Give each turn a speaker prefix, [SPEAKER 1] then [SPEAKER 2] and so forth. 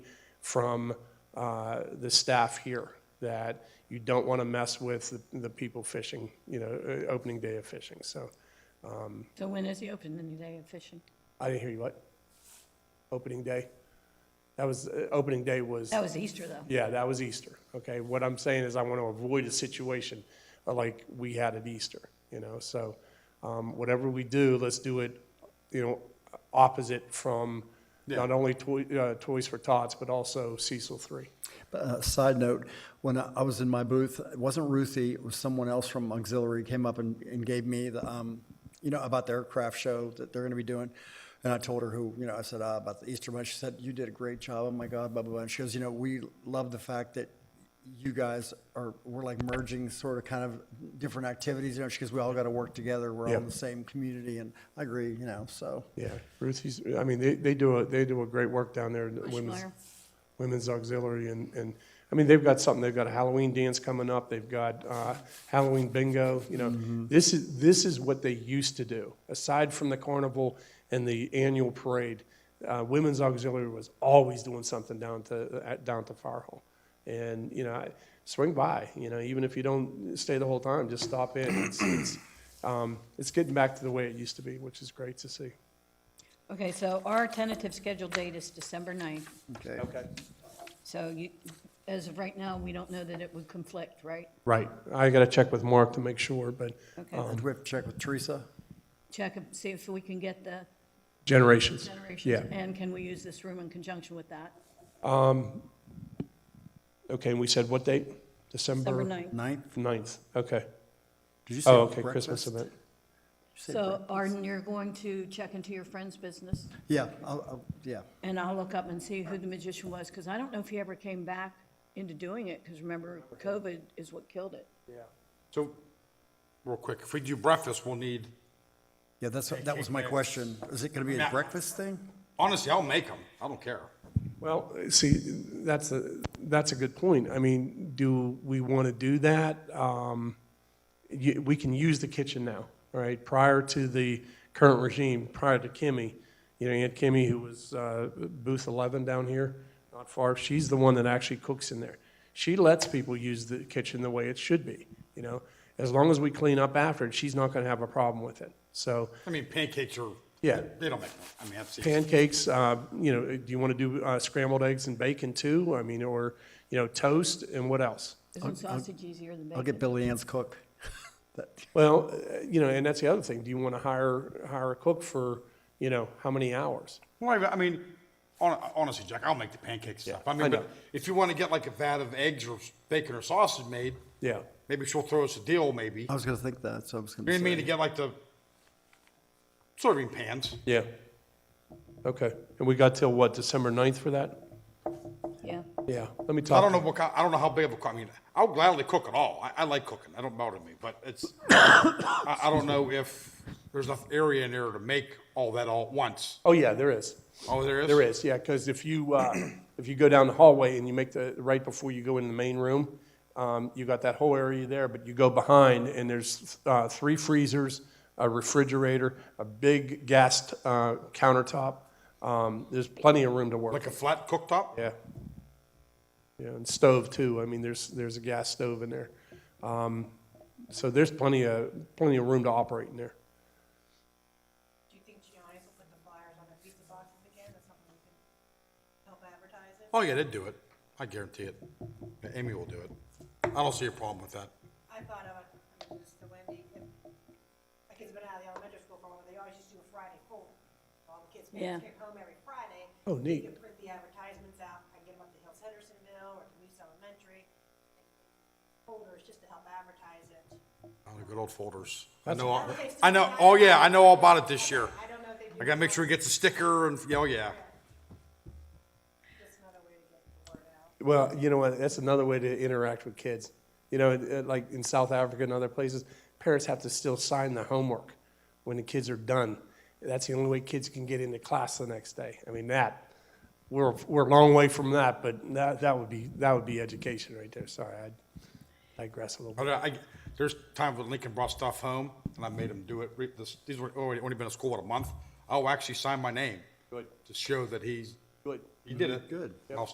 [SPEAKER 1] from uh, the staff here, that you don't want to mess with the- the people fishing, you know, uh, opening day of fishing. So
[SPEAKER 2] So when is the opening day of fishing?
[SPEAKER 1] I didn't hear you, what? Opening day? That was, uh, opening day was,
[SPEAKER 2] That was Easter, though.
[SPEAKER 1] yeah, that was Easter, okay? What I'm saying is I want to avoid a situation uh, like we had at Easter, you know? So um, whatever we do, let's do it, you know, opposite from not only Toy- uh, Toys for Tots, but also Cecil 3.
[SPEAKER 3] Uh, Side note, when I I was in my booth, it wasn't Ruthie, it was someone else from auxiliary came up and, and gave me the, um, you know, about their craft show that they're gonna be doing. And I told her who, you know, I said, ah, about the Easter Bunny. She said, you did a great job. Oh my God, blah, blah, blah. And she goes, you know, we love the fact that you guys are, we're like merging sort of kind of different activities, you know, she goes, we all gotta work together. We're all in
[SPEAKER 1] Yeah.
[SPEAKER 3] the same community. And I agree, you know, so.
[SPEAKER 1] Yeah, Ruthie's, I mean, they, they do a, they do a great work down there, the Women's,
[SPEAKER 2] Bushmeyer.
[SPEAKER 1] Women's Auxiliary, and, and, I mean, they've got something, they've got a Halloween dance coming up, they've got, uh, Halloween bingo, you know. This is, this is what they used to do, aside from the carnival and the annual parade, uh, Women's Auxiliary was always doing something down to, at, down to Fire Hall. And, you know, I- swing by, you know, even if you don't stay the whole time, just stop in, it's, it's, um, it's getting back to the way it used to be, which is great to see.
[SPEAKER 2] Okay, so our tentative scheduled date is December 9th.
[SPEAKER 3] Okay.
[SPEAKER 1] Okay.
[SPEAKER 2] So you, as of right now, we don't know that it would conflict, right?
[SPEAKER 1] Right. I got to check with Mark to make sure, but
[SPEAKER 2] Okay,
[SPEAKER 3] And we have to check with Teresa.
[SPEAKER 2] check and see if we can get the
[SPEAKER 1] generations.
[SPEAKER 2] generations.
[SPEAKER 1] Yeah.
[SPEAKER 2] And can we use this room in conjunction with that?
[SPEAKER 1] Okay, and we said what date?
[SPEAKER 2] December
[SPEAKER 1] December
[SPEAKER 2] 9th.
[SPEAKER 3] Ninth?
[SPEAKER 1] 9th. Okay.
[SPEAKER 3] Did you say
[SPEAKER 1] Oh, okay,
[SPEAKER 3] breakfast?
[SPEAKER 1] Christmas event.
[SPEAKER 3] Did you say
[SPEAKER 2] So
[SPEAKER 3] break-
[SPEAKER 2] Arden, you're going to check into your friend's business,
[SPEAKER 3] Yeah, I'll, I'll, yeah.
[SPEAKER 2] and I'll look up and see who the magician was, because I don't know if he ever came back into doing it, because remember, COVID is what killed it.
[SPEAKER 4] So, real quick, if we do breakfast, we'll need,
[SPEAKER 3] Yeah, that's, that was my question. Is it gonna be a
[SPEAKER 4] Matt.
[SPEAKER 3] breakfast thing?
[SPEAKER 4] honestly, I'll make them. I don't care.
[SPEAKER 1] Well, see, that's a, that's a good point. I mean, do we want to do that? Um, y- We can use the kitchen now, all right? Prior to the current regime, prior to Kimmy, you know, Aunt Kimmy, who was uh, booth 11 down here, not far, she's the one that actually cooks in there. She lets people use the kitchen the way it should be, you know? As long as we clean up after it, she's not going to have a problem with it. So
[SPEAKER 4] I mean, pancakes are,
[SPEAKER 1] Yeah.
[SPEAKER 4] they don't make them. I mean, that's easy.
[SPEAKER 1] pancakes, uh, you know, do you want to do uh, scrambled eggs and bacon too? I mean, or, you know, toast and what else?
[SPEAKER 2] Isn't sausage easier than bacon?
[SPEAKER 3] I'll get Billy Ann's cook. That-
[SPEAKER 1] Well, uh, you know, and that's the other thing. Do you want to hire, hire a cook for, you know, how many hours?
[SPEAKER 4] Well, I- I mean, hon- honestly, Jack, I'll make the pancakes and stuff. I
[SPEAKER 1] I
[SPEAKER 4] mean,
[SPEAKER 1] know.
[SPEAKER 4] but if you want to get like a vat of eggs or bacon or sausage made,
[SPEAKER 1] Yeah.
[SPEAKER 4] maybe she'll throw us a deal, maybe.
[SPEAKER 3] I was gonna think that, so I was
[SPEAKER 4] You know
[SPEAKER 3] gonna
[SPEAKER 4] what I mean, to
[SPEAKER 3] say.
[SPEAKER 4] get like the serving pans.
[SPEAKER 1] Yeah. Okay. And we got till what, December 9th for that?
[SPEAKER 2] Yeah.
[SPEAKER 1] Yeah. Let me talk.
[SPEAKER 4] I don't know what, kind- I don't know how big of a, co- I mean, I'll gladly cook it all. I, I like cooking. I don't bother me, but it's, I, I don't know if there's enough area in there to make all that all at once.
[SPEAKER 1] Oh, yeah, there is.
[SPEAKER 4] Oh, there is?
[SPEAKER 1] There is, yeah, because if you, uh, if you go down the hallway and you make the, right before you go in the main room, um, you got that whole area there, but you go behind and there's uh, three freezers, a refrigerator, a big gas uh, countertop. Um, There's plenty of room to work.
[SPEAKER 4] Like a flat cooktop?
[SPEAKER 1] Yeah. Yeah, and stove too. I mean, there's, there's a gas stove in there. Um, So there's plenty of, plenty of room to operate in there.
[SPEAKER 5] Do you think Giannis will put the flyers on the pizza boxes again? That's something we can help advertise it?
[SPEAKER 4] Oh, yeah, they'd do it. I guarantee it. Yeah, Amy will do it. I don't see a problem with that.
[SPEAKER 5] I thought of, it, I mean, just the Wendy, if my kids have been out of the elementary school for a while, they always used to do a Friday pool. All the kids
[SPEAKER 2] Yeah.
[SPEAKER 5] came home every Friday.
[SPEAKER 1] Oh,
[SPEAKER 5] We
[SPEAKER 1] neat.
[SPEAKER 5] could print the advertisements out, I can get them up to Hills Hendersonville or to Moose Elementary. Folders just to help advertise it.
[SPEAKER 4] Oh, the good old folders. I know, all- I know, oh, yeah, I know all about it this year.
[SPEAKER 5] I don't know if they do.
[SPEAKER 4] I gotta make sure he gets a sticker and, oh, yeah.
[SPEAKER 5] Just another way to get the word out.
[SPEAKER 1] Well, you know what? That's another way to interact with kids. You know, it- it- like in South Africa and other places, parents have to still sign the homework when the kids are done. That's the only way kids can get into class the next day. I mean, that we're we're a long way from that, but that that would be that would be education right there. Sorry, I digress a little bit.
[SPEAKER 4] But uh, I, there's times when Lincoln brought stuff home and I made him do it. Re- this- These were already, only been in school, what, a month? I'll actually sign my name.
[SPEAKER 1] Good.
[SPEAKER 4] To show that he's,
[SPEAKER 1] Good.
[SPEAKER 4] he did it.
[SPEAKER 3] Good.
[SPEAKER 4] I'll